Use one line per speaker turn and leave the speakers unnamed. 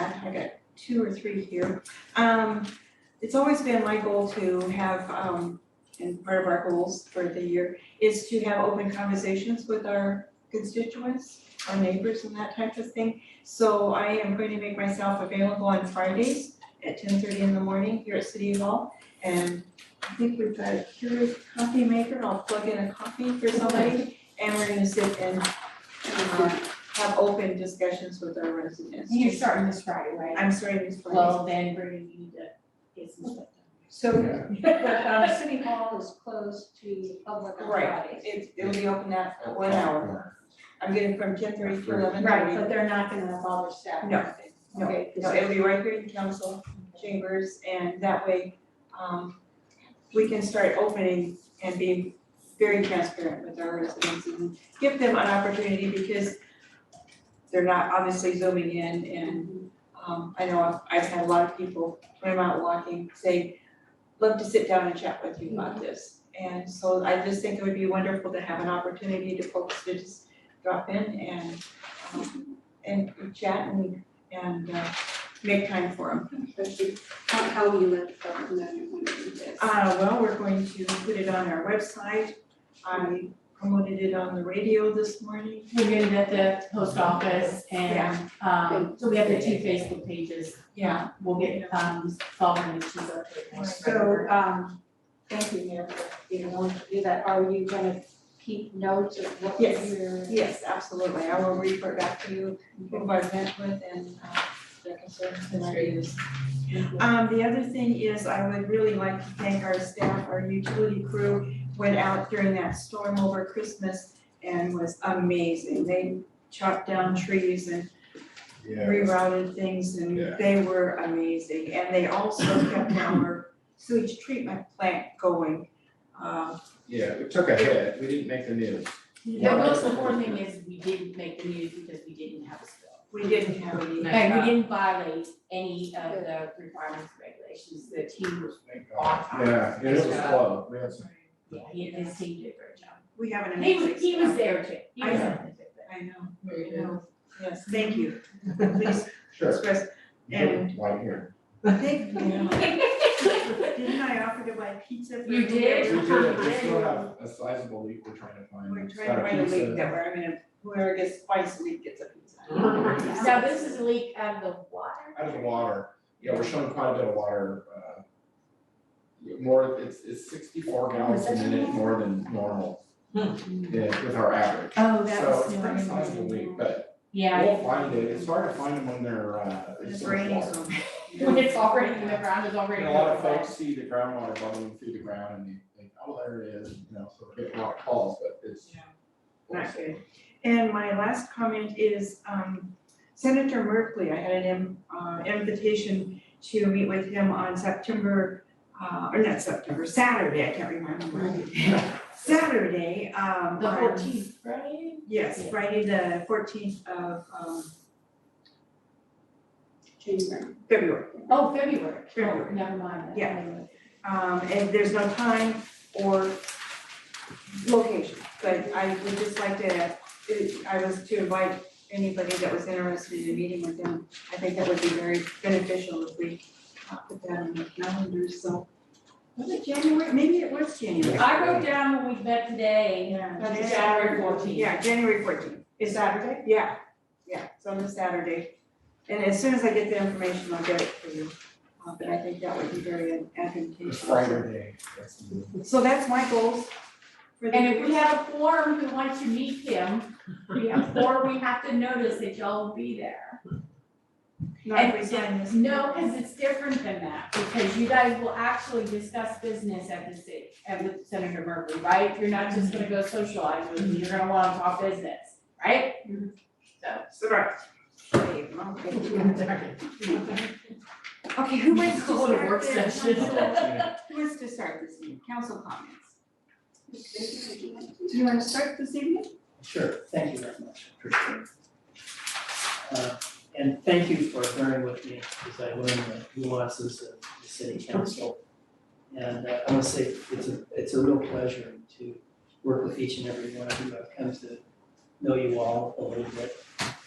I've got two or three here. Um, it's always been my goal to have, um, and part of our goals for the year is to have open conversations with our constituents, our neighbors and that type of thing. So I am going to make myself available on Fridays at ten thirty in the morning here at City Hall. And I think we've got a Keurig coffee maker, I'll plug in a coffee for somebody, and we're gonna sit and, uh, have open discussions with our residents.
You're starting this Friday, right?
I'm sorry, Ms. Flores.
Well, then we're gonna need to get some stuff uh,
So,
But um City Hall is closed to the public on
Right.
Fridays.
It, it'll be open at one hour. I'm getting from ten thirty to eleven
done.
thirty.
Right, but they're not gonna bother staff.
No, no,
Okay, 'cause
No, it'll be right here in council chambers and that way, um, we can start opening and being very transparent with our residents and give them an opportunity because they're not obviously zooming in and, um, I know I've, I've had a lot of people when I'm out walking say, love to sit down and chat with you about this. And so I just think it would be wonderful to have an opportunity to folks to just drop in and, um, and chat and and uh make time for them.
especially how how you let government know when to do this.
Uh well, we're going to put it on our website. I promoted it on the radio this morning.
We're getting it at the post office and, um, so we have the two Facebook pages.
Yeah,
We'll get, um, following the two up there.
So um thank you, Mayor, for being willing to do that. Are you gonna keep notes of what you're
Yes. yes, absolutely. I will report back to you who I've met with and uh their concerns and ideas. Um the other thing is I would really like to thank our staff, our utility crew went out during that storm over Christmas and was amazing. They chopped down trees and
yeah,
rerouted things and
Yeah.
they were amazing. And they also kept our sewage treatment plant going. Uh,
yeah, it took a hit, we didn't make the news.
The most important thing is we didn't make the news because we didn't have a spill.
We didn't have any,
And we didn't violate any of the requirements, regulations, the team was
Thank
on
God.
time.
Yeah, and it was slow, we had some,
Yeah, he and his team did a great job.
we have an
He
amazing
was, he was
staff.
there too, he was there.
I know,
Very
I know. Yes, thank you. Please
sure,
express,
you did it right here.
thank you. Didn't I offer to buy pizza for
You
We
did?
whoever-
did, it. we still have a sizable leak we're trying to find.
We're
It's
trying
got
to find a leak
pizza.
that we're, I mean, whoever gets twice a week gets a pizza.
Now, this is a leak out of the water.
out of the water, yeah, we're showing quite a bit of water, uh. More, it's it's sixty-four
Oh,
gallons a minute more than normal.
Hmm.
Yeah, with our average,
Oh,
so it's pretty sizable leak, but
Yeah.
we'll find it, it's hard to find them when they're uh.
It's
sort of
raining
water.
so
When it's already, the ground is already.
And a lot of
overflowing.
folks see the groundwater bubbling through the ground and they think, oh, there it is, you know, so they get a lot of calls, but it's.
Yeah. Not good. And my last comment is um, Senator Merkley, I had an im- uh, invitation to meet with him on September, uh, or not September, Saturday, I can't remember. Saturday, um,
The
on-
fourteenth, right?
Yes, Friday, the fourteenth of um,
January.
February.
Oh, February, oh,
February.
never mind. that.
Yeah. Um, And there's no time or location, but I would just like to, it- I was to invite anybody that was interested in meeting with them. I think that would be very beneficial if we uh, put that on the calendar, so. Was it January? Maybe it was January.
I wrote down when we met today,
Yeah.
That's January 14th.
Yeah, January fourteenth.
is Saturday,
Yeah, yeah, it's on the Saturday. And as soon as I get the information, I'll get it for you. Uh, But I think that would be very advantageous.
Friday day, that's the.
So that's my goals for the.
and if we have a forum who wants to meet him, we have, or we have to notice that y'all will be there.
Not if we sign this.
No, because it's different than that, because you guys will actually discuss business at the city, at with Senator Murphy, right? You're not just gonna go socialize with him, you're gonna wanna talk business, right?
Sorry. Okay, who wants to
Call it a work
start this? Who
session.
wants to start this meeting? Council comments.
Do you want to start this evening?
Sure, thank you very much, appreciate it. Uh, And thank you for bearing with me as I learn the nuances of the city council. And uh, I want to say it's a, it's a real pleasure to work with each and uh, every one of you. I've come to know you all a little bit